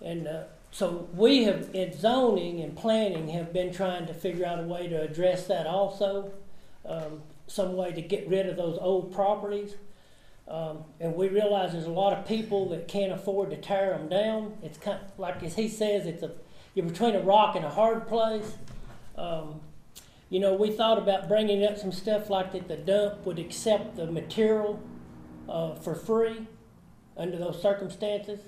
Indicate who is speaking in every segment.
Speaker 1: And uh, so we have, in zoning and planning, have been trying to figure out a way to address that also, um, some way to get rid of those old properties. Um, and we realize there's a lot of people that can't afford to tear them down. It's kind, like as he says, it's a, you're between a rock and a hard place. Um, you know, we thought about bringing up some stuff like that the dump would accept the material, uh, for free under those circumstances.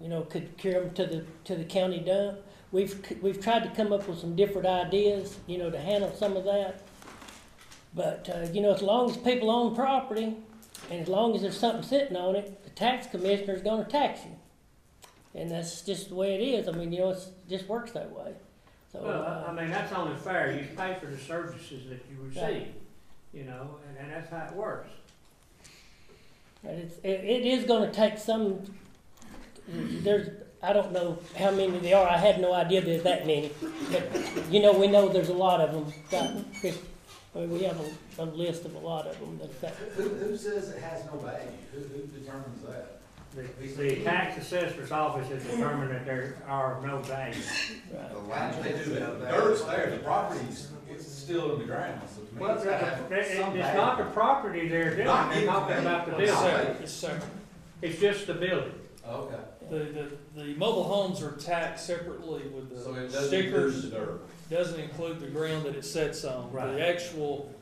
Speaker 1: You know, could carry them to the, to the county dump. We've, c- we've tried to come up with some different ideas, you know, to handle some of that. But, uh, you know, as long as people own property and as long as there's something sitting on it, the tax commissioner's gonna tax you. And that's just the way it is. I mean, you know, it's, it just works that way. So,
Speaker 2: Well, I- I
Speaker 1: uh,
Speaker 2: mean, that's only fair, you pay for the services that you receive,
Speaker 1: Right.
Speaker 2: you know, and, and that's how it works.
Speaker 1: and it's, it, it is gonna take some, there's, I don't know how many there are. I had no idea there's that many. But, you know, we know there's a lot of them. Right, Chris? I mean, we have a, a list of a lot of them that's that.
Speaker 3: Who, who says it has no value? Who, who determines that?
Speaker 2: The, the tax assessor's office has determined that there are no values.
Speaker 1: Right.
Speaker 4: The
Speaker 3: How
Speaker 4: land
Speaker 3: do they do that? The
Speaker 4: that.
Speaker 3: Dirt's there, the property's, it's still in the ground, so to me,
Speaker 2: Well,
Speaker 3: it's
Speaker 2: the-
Speaker 3: gotta have
Speaker 2: the- it-
Speaker 3: some
Speaker 2: it's not
Speaker 3: value.
Speaker 2: the property they're doing,
Speaker 3: Not
Speaker 2: they're talking
Speaker 3: anything.
Speaker 2: about the
Speaker 3: Yes,
Speaker 2: building,
Speaker 3: sir.
Speaker 5: Yes, sir.
Speaker 2: it's just the building.
Speaker 3: Oh, Okay,
Speaker 5: The, the, the mobile homes are taxed separately with
Speaker 3: so it
Speaker 5: the
Speaker 3: doesn't include the
Speaker 5: stickers.
Speaker 3: dirt.
Speaker 5: Doesn't include the ground that it sits on.
Speaker 2: Right.
Speaker 5: The actual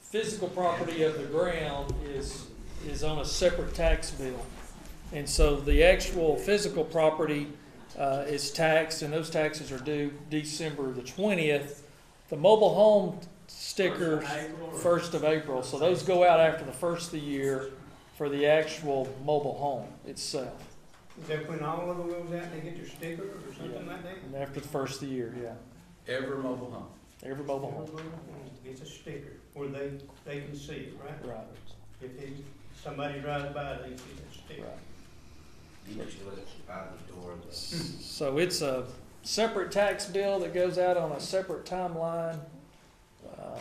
Speaker 5: physical property of the ground is, is on a separate tax bill. And so the actual physical property, uh, is taxed and those taxes are due December the twentieth. The mobile home stickers, first of April, so those go out after the first of the year for the actual mobile home itself.
Speaker 6: Is that when all of them goes out and they get their sticker or something like that?
Speaker 5: And after the first of the year, yeah.
Speaker 3: Every mobile home.
Speaker 5: Every mobile home,
Speaker 6: It's a sticker, or they, they can see it, right?
Speaker 5: right,
Speaker 6: If they, somebody drives by, they see that sticker.
Speaker 5: right.
Speaker 4: You just let it out the door of the.
Speaker 5: So it's a separate tax bill that goes out on a separate timeline. Uh,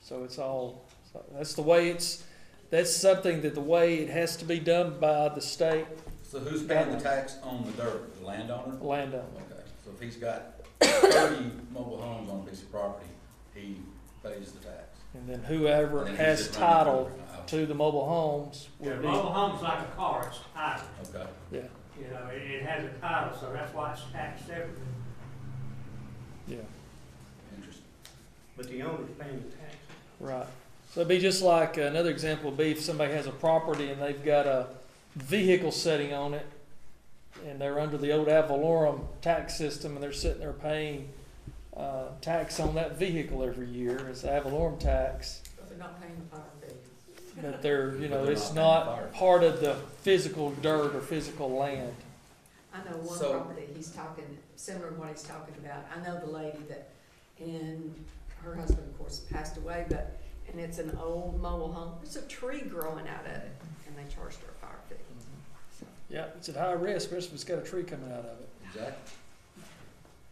Speaker 5: So it's all, so that's the way it's, that's something that the way it has to be done by the state
Speaker 3: So who's paying the tax on the dirt? The landowner?
Speaker 5: landowner.
Speaker 3: Okay, so if he's got thirty mobile homes on a piece of property, he pays the tax.
Speaker 5: And then
Speaker 3: And
Speaker 5: whoever
Speaker 3: then he's
Speaker 5: has
Speaker 3: just running
Speaker 5: title
Speaker 3: over.
Speaker 5: to the mobile homes
Speaker 2: Yeah,
Speaker 5: will be,
Speaker 2: mobile home's like a car, it's titled,
Speaker 3: Okay.
Speaker 5: yeah,
Speaker 2: you know, it, it has a title, so that's why it's taxed separately.
Speaker 5: yeah,
Speaker 3: Interesting.
Speaker 6: But the owner's paying the tax.
Speaker 5: right. So it'd be just like, another example would be if somebody has a property and they've got a vehicle setting on it and they're under the old ad valorem tax system and they're sitting there paying, uh, tax on that vehicle every year, it's ad valorem tax.
Speaker 7: They're not paying the fire fee.
Speaker 5: But they're, you
Speaker 3: But
Speaker 5: know,
Speaker 3: they're
Speaker 5: it's
Speaker 3: not paying
Speaker 5: not
Speaker 3: fire.
Speaker 5: part of the physical dirt or physical land.
Speaker 7: I know one
Speaker 3: So-
Speaker 7: property, he's talking, similar to what he's talking about, I know the lady that, and her husband, of course, passed away, but, and it's an old mobile home, there's a tree growing out of it, and they charged her a fire fee. So,
Speaker 5: Yeah, it's at high risk, especially if it's got a tree coming out of it.
Speaker 3: Exactly.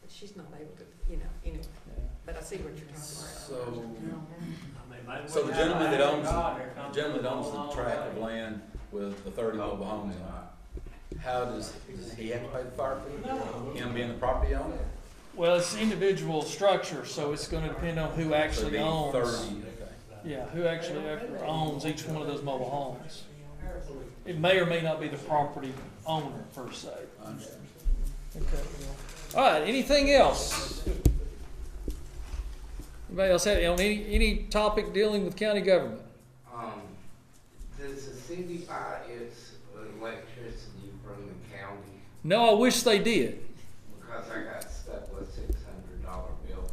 Speaker 7: But she's not able to, you know, anyway,
Speaker 5: Yeah.
Speaker 7: but I see what you're talking
Speaker 3: So-
Speaker 7: about.
Speaker 2: I mean, maybe
Speaker 3: So
Speaker 2: we
Speaker 3: the
Speaker 2: have
Speaker 3: gentleman
Speaker 2: an
Speaker 3: that
Speaker 2: act
Speaker 3: owns,
Speaker 2: of God or
Speaker 3: the
Speaker 2: something.
Speaker 3: gentleman that owns the tract of
Speaker 2: Mobile
Speaker 3: land with the thirty mobile homes on it, how does, does he have to pay the fire fee?
Speaker 2: No.
Speaker 3: Him being the property owner?
Speaker 5: Well, it's individual structure, so it's gonna depend on who
Speaker 3: So it'd be
Speaker 5: actually owns.
Speaker 3: Thirty, okay.
Speaker 5: Yeah, who actually actually owns each one of those mobile homes. It may or may not be the property owner per se.
Speaker 3: I understand.
Speaker 5: Okay. All right, anything else? Anybody else have, on any, any topic dealing with county government?
Speaker 4: Um, does the city buy its electricity from the county?
Speaker 5: No, I wish they did,
Speaker 4: Because I got stuck with six hundred dollar bills.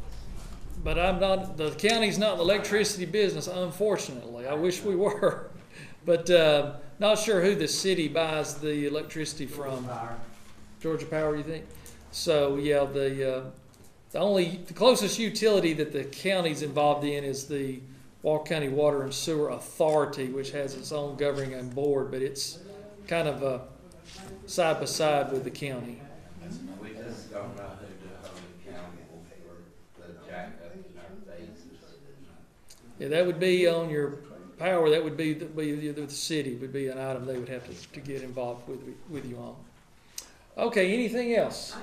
Speaker 5: but I'm not, the county's not in the electricity business, unfortunately. I wish we were. But, uh, not sure who the city buys the electricity from.
Speaker 2: Fire.
Speaker 5: Georgia Power, you think? So yeah, the uh, the only the closest utility that the county's involved in is the Walk County Water and Sewer Authority, which has its own governing and board, but it's kind of uh, side by side with the county.
Speaker 4: We just don't know who the whole county will for the jackup in our faces.
Speaker 5: Yeah, that would be on your power. That would be the, be the, the city would be an item they would have to, to get involved with with you on. Okay, anything else?